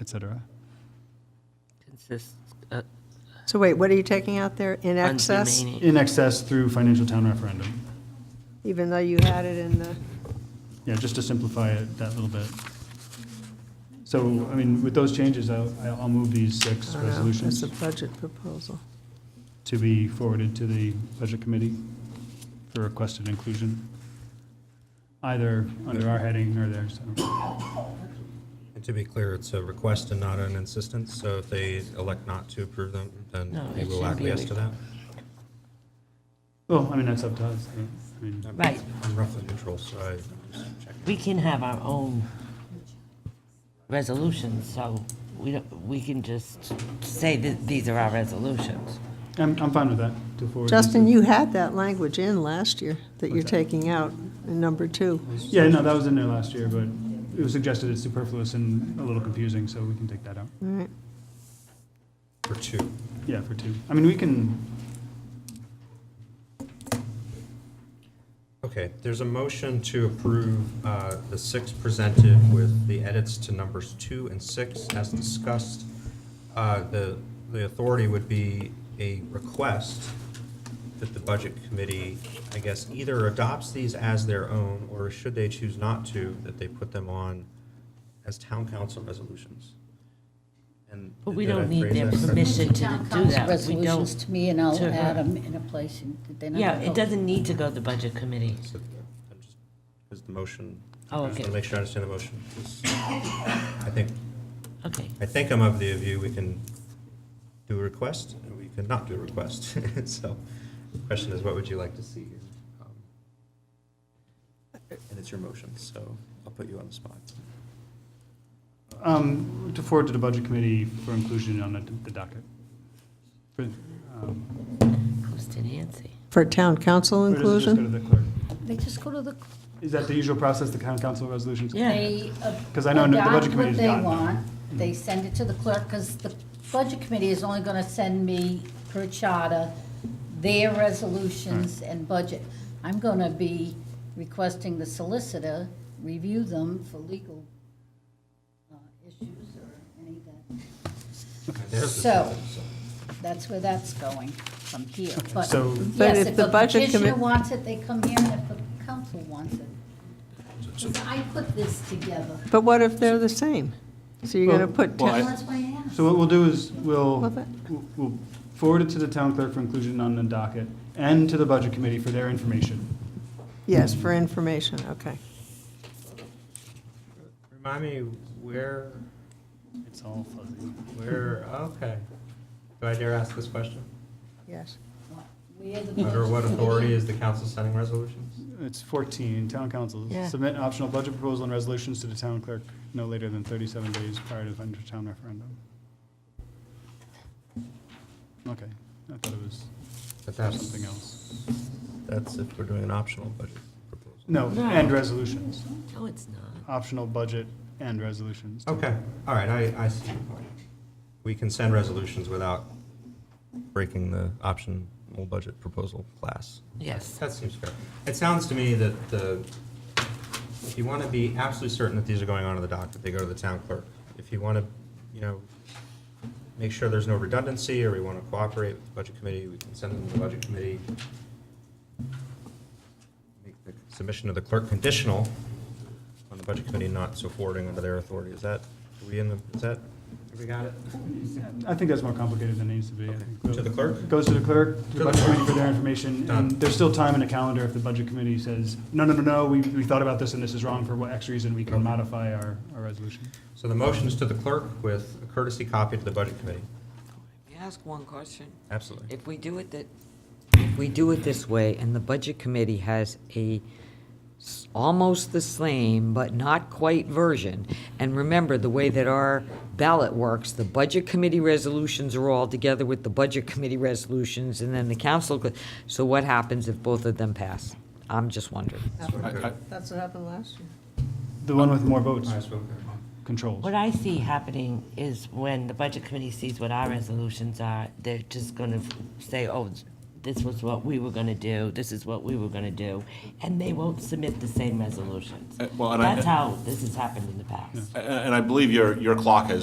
et cetera. Consist, uh, So wait, what are you taking out there? In funds excess? remaining. In excess through financial town referendum. Even though you had it in the, Yeah, just to simplify it that little bit. So, I mean, with those changes, I'll, I'll move these I six don't know, as resolutions Uh, a budget proposal. to be forwarded to the budget committee for requested inclusion, either under our heading or theirs. I don't know. And to be clear, it's a request and not an insistence, so if they elect not to approve them, then No, we it will shouldn't be a acquiesce to that. Well, I mean, that's up to us. right? I mean, Right. I'm roughly neutral, so I just check. We can have our own resolutions, so we don't, we can just say that these are our resolutions. I'm, I'm fine with that, to forward. these Justin, to- you had that language in last year that you're What's that? taking out in number two. Yeah, no, that was in there last year, but it was suggested it's superfluous and a little confusing, so we can take that out. All right. For two. Yeah, for two. I mean, we can, Okay, there's a motion to approve uh, the six presented with the edits to numbers two and six as discussed. Uh, The, the authority would be a request that the Budget Committee, I guess, either adopts these as their own, or should they choose not to, that they put them on as town council resolutions. And But we did I don't need phrase their that correctly? permission to Town do council that. We resolutions don't, to me, and I'll to her. add them in a place, and then I'll. yeah, it doesn't need to go to the budget committee. So, I'm uh, just- Is the motion? Oh, I just okay. wanna Make sure I understand the motion. I think Okay, I think I'm of the view we can do a request, and we could not do a request. So the question is, what would you like to see? here? Um, And it's your motion, so I'll put you on the spot. um, to forward to the budget committee for inclusion on the the docket. For, um, goes to Nancy. For town council Or does it just go to inclusion? the clerk? They just go to the, Is that the usual process, the town council resolutions? Yeah. they. uh, 'Cause I know the budget adopt committee's gotten them. What they want, they send it to the clerk, because the budget committee is only gonna send me per charter their resolutions and budget. I'm gonna be requesting the solicitor review them for legal uh, issues or any of that. There's the So- sentence. That's where that's going from here, but. So- But Yes, if if the a budget petitioner commi- wants it, they come here, and if the council wants it. 'Cause I put this together. But what if they're the same? So you're going to put Well, town, I- That's why I asked. So what we'll do is, we'll, Love it. we'll- we'll forward it to the town clerk for inclusion on the docket and to the budget committee for their information. yes, for information, okay. Remind me where, It's all fuzzy. where, okay. Do I dare ask this question? Yes. Where the Under budget what committee- authority is the council sending resolutions? It's 14, town council, Yeah. submit optional budget proposal and resolutions to the town clerk no later than 37 days prior to the final town referendum. Okay, I thought it was But that's, something else. that's if we're doing an optional budget proposal. No, No. and resolutions, No, it's not. optional budget and resolutions. too. Okay, all right, I, I see your point. We can send resolutions without breaking the optional budget proposal class. Yes. That seems fair. It sounds to me that the, if you want to be absolutely certain that these are going onto the docket, they go to the town clerk. If you want to, you know, make sure there's no redundancy, or we want to cooperate with the budget committee, we can send them to the budget committee. Make the Submission to the clerk conditional on the budget committee not so forwarding under their authority. Is that, are we in the, is that, have we got it? I think that's more complicated than it needs to be. I Okay. think. To the clerk? Goes to the clerk, to the the budget clerk. committee for their information, and Done. there's still time in the calendar if the budget committee says, no, no, no, no, we, we thought about this and this is wrong for what X reason, we can Okay. modify our, our resolution. So the motion is to the clerk with a courtesy copy to the budget committee. May I ask one question? Absolutely. If we do it that, if we do it this way, and the budget committee has a s- almost the same but not quite version, and remember, the way that our ballot works, the budget committee resolutions are all together with the budget committee resolutions, and then the council, co- so what happens if both of them pass? I'm just wondering. That's what happened last year. The one with more votes All right, so- controls. What I see happening is when the budget committee sees what our resolutions are, they're just gonna say, oh, this was what we were gonna do, this is what we were gonna do, and they won't submit the same resolutions. Uh, well, and I- That's how this has happened in the past. And and I believe your, your clock has